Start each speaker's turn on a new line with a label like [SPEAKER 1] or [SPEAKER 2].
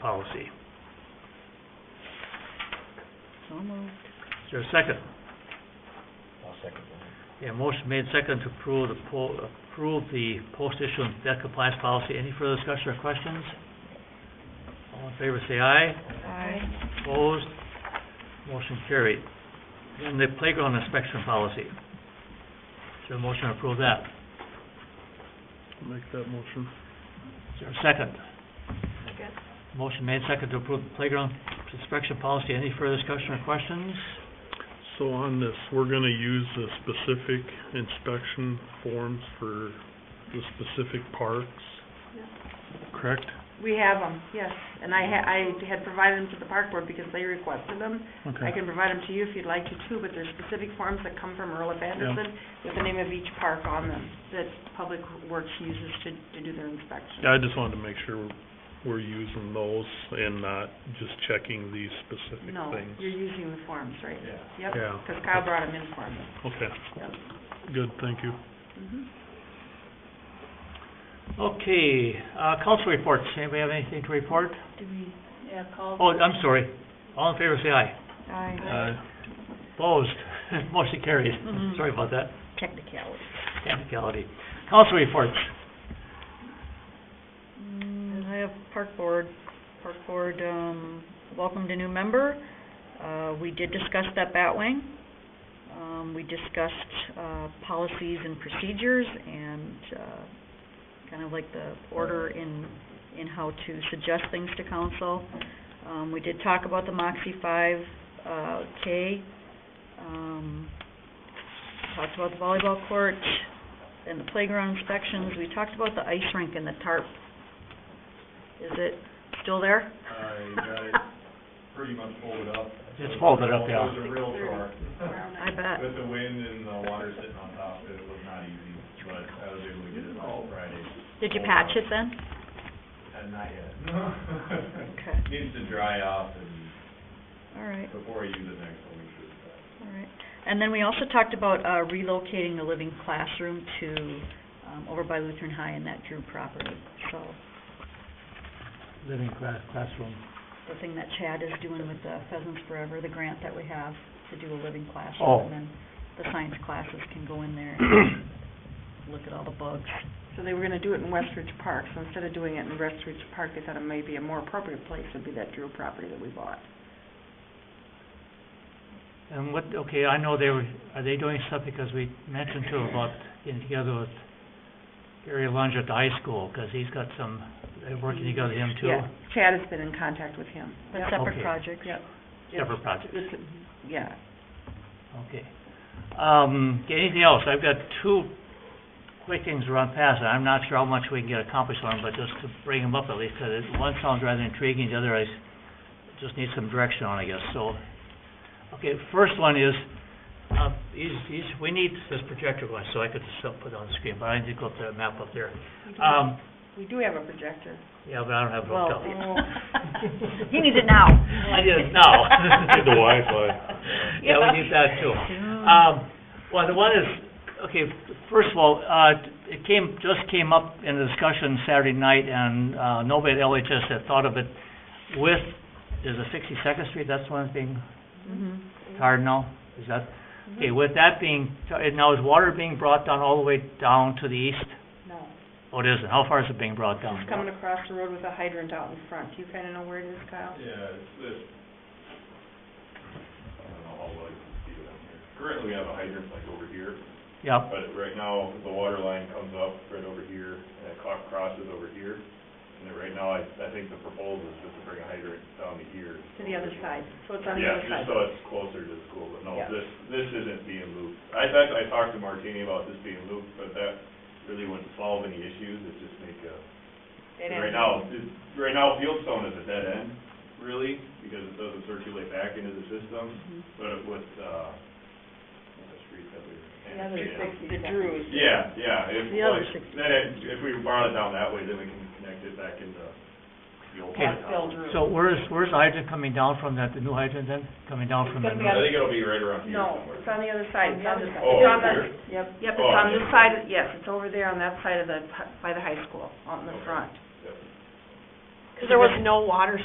[SPEAKER 1] policy.
[SPEAKER 2] So moved.
[SPEAKER 1] Is there a second?
[SPEAKER 3] I'll second that.
[SPEAKER 1] Yeah, motion made second to approve the po- approve the post-issuance debt compliance policy. Any further discussion or questions? All in favor, say aye.
[SPEAKER 2] Aye.
[SPEAKER 1] Opposed? Motion carried. And the playground inspection policy. Is there a motion to approve that?
[SPEAKER 4] Make that motion.
[SPEAKER 1] Is there a second?
[SPEAKER 2] Second.
[SPEAKER 1] Motion made second to approve the playground inspection policy. Any further discussion or questions?
[SPEAKER 4] So on this, we're gonna use the specific inspection forms for the specific parks, correct?
[SPEAKER 5] We have them, yes, and I ha- I had provided them to the park board because they requested them. I can provide them to you if you'd like to too, but there's specific forms that come from Earl of Anderson with the name of each park on them that Public Works uses to, to do their inspection.
[SPEAKER 4] Yeah, I just wanted to make sure we're using those and not just checking these specific
[SPEAKER 5] No,
[SPEAKER 4] things.
[SPEAKER 5] you're using the forms, right? Yep,
[SPEAKER 3] Yeah.
[SPEAKER 4] Yeah.
[SPEAKER 5] because Kyle brought them in for me.
[SPEAKER 4] Okay,
[SPEAKER 5] Yep.
[SPEAKER 4] good, thank you.
[SPEAKER 5] Mhm.
[SPEAKER 1] Okay, uh, council reports. Anybody have anything to report?
[SPEAKER 2] Do we?
[SPEAKER 6] Yeah, call.
[SPEAKER 1] Oh, I'm sorry. All in favor, say aye. Uh,
[SPEAKER 2] Aye.
[SPEAKER 4] Aye.
[SPEAKER 1] Opposed? Motion carried.
[SPEAKER 2] Mhm.
[SPEAKER 1] Sorry about that.
[SPEAKER 2] Technicality.
[SPEAKER 1] Technicality. Council reports.
[SPEAKER 2] Mm, I have park board, park board, um, welcomed a new member. Uh, we did discuss that bat wing. Um, we discussed, uh, policies and procedures and, uh, kind of like the order in, in how to suggest things to council. Um, we did talk about the Moxie five, uh, K. Um, talked about the volleyball court and the playground inspections. We talked about the ice rink and the tarp is it still there?
[SPEAKER 3] I got it pretty much folded up.
[SPEAKER 1] It's folded up, yeah.
[SPEAKER 3] It was a real chore.
[SPEAKER 2] I bet.
[SPEAKER 3] With the wind and the water sitting on top of it, it was not easy, but I was able to get it all Friday.
[SPEAKER 2] Did you patch it then?
[SPEAKER 3] Uh, Not yet.
[SPEAKER 2] Okay,
[SPEAKER 3] Needs to dry off and
[SPEAKER 2] all right,
[SPEAKER 3] before I use it next one, we should. uh,
[SPEAKER 2] all right. And then we also talked about uh, relocating the living classroom to, um, over by Lutheran High in that Drew property. So
[SPEAKER 1] Living cla- classroom.
[SPEAKER 2] the thing that Chad is doing with the Pheasants Forever, the grant that we have to do a living
[SPEAKER 1] Oh.
[SPEAKER 2] classroom. And then the science classes can go in there and look at all the bugs.
[SPEAKER 5] So they were gonna do it in Westridge Park, so instead of doing it in Westridge Park, they thought it might be a more appropriate place would be that Drew property that we bought.
[SPEAKER 1] And what, okay, I know they were, are they doing stuff because we mentioned too about getting together with Gary Lunge at the high school, because he's got some, they're working together, him too?
[SPEAKER 5] Yeah, Chad has been in contact with him.
[SPEAKER 2] But
[SPEAKER 5] Yep.
[SPEAKER 2] separate
[SPEAKER 1] Okay.
[SPEAKER 2] projects.
[SPEAKER 5] Yep.
[SPEAKER 1] Separate projects,
[SPEAKER 5] It's, yeah,
[SPEAKER 1] okay. Um, okay, anything else? I've got two quick things to run past, and I'm not sure how much we can get accomplished on, but just to bring them up at least, because one sounds rather intriguing, the other I s- just need some direction on, I guess, so. Okay, first one is, uh, is, is, we need this projector glass, so I could just uh, put it on the screen, but I need to go up the map up there.
[SPEAKER 5] We do-
[SPEAKER 1] Um,
[SPEAKER 5] We do have a projector.
[SPEAKER 1] yeah, but I don't have it hooked
[SPEAKER 2] Well,
[SPEAKER 1] up.
[SPEAKER 2] he needs it now.
[SPEAKER 1] I need it now.
[SPEAKER 4] Need the Wi-Fi.
[SPEAKER 1] Yeah, we need that too.
[SPEAKER 2] Soon.
[SPEAKER 1] Um, well, the one is, okay, first of all, uh, it came, just came up in a discussion Saturday night, and, uh, nobody at LHS had thought of it with, is it Sixty-second Street, that's the one that's being
[SPEAKER 2] Mhm.
[SPEAKER 1] tarred now, is that?
[SPEAKER 2] Mm-hmm.
[SPEAKER 1] Okay, with that being, tar- now is water being brought down all the way down to the east?
[SPEAKER 5] No.
[SPEAKER 1] Oh, it isn't, how far is it being brought down?
[SPEAKER 5] It's coming across the road with a hydrant out in front. Do you kinda know where it is, Kyle?
[SPEAKER 3] Yeah, it's, it's, I don't know how well you can see it on here. Currently, we have a hydrant like over here,
[SPEAKER 1] Yep,
[SPEAKER 3] But right now, the water line comes up right over here, and it cro- crosses over here. And then right now, I, I think the proposal is just to bring a hydrant down to here.
[SPEAKER 5] To the other side, so it's on the other
[SPEAKER 3] Yeah, just
[SPEAKER 5] side.
[SPEAKER 3] so it's closer to the school, but no,
[SPEAKER 5] Yeah.
[SPEAKER 3] this, this isn't being looped. I, in fact, I talked to Martini about this being looped, but that really wouldn't solve any issues, it just make a,
[SPEAKER 5] It ends.
[SPEAKER 3] right now, it- right now, Fieldstone is a dead end, really, because it doesn't circulate back into the system.
[SPEAKER 5] Mm-hmm.
[SPEAKER 2] Mhm.
[SPEAKER 3] But with, uh, the street that we.
[SPEAKER 5] The other
[SPEAKER 3] Yeah.
[SPEAKER 5] six, the Drews.
[SPEAKER 3] Yeah, yeah, if,
[SPEAKER 2] The other
[SPEAKER 3] like,
[SPEAKER 2] six-
[SPEAKER 3] then it- if we borrow it down that way, then we can connect it back into the old.
[SPEAKER 1] Okay.
[SPEAKER 3] downtown.
[SPEAKER 1] so where's, where's the hydrant coming down from that, the new hydrant then, coming down from the
[SPEAKER 5] It's
[SPEAKER 1] north?
[SPEAKER 5] gonna
[SPEAKER 3] I think it'll be right around here
[SPEAKER 5] No,
[SPEAKER 3] somewhere.
[SPEAKER 5] it's on the other side, it's on the,
[SPEAKER 3] Oh,
[SPEAKER 5] it's on
[SPEAKER 3] over
[SPEAKER 5] the, yep, yep,
[SPEAKER 3] Oh,
[SPEAKER 5] it's on this
[SPEAKER 3] yeah.
[SPEAKER 5] side, yes, it's over there on that side of the, by the high school, out in the
[SPEAKER 3] Okay.
[SPEAKER 5] front.
[SPEAKER 3] Yep.
[SPEAKER 6] Because there was no water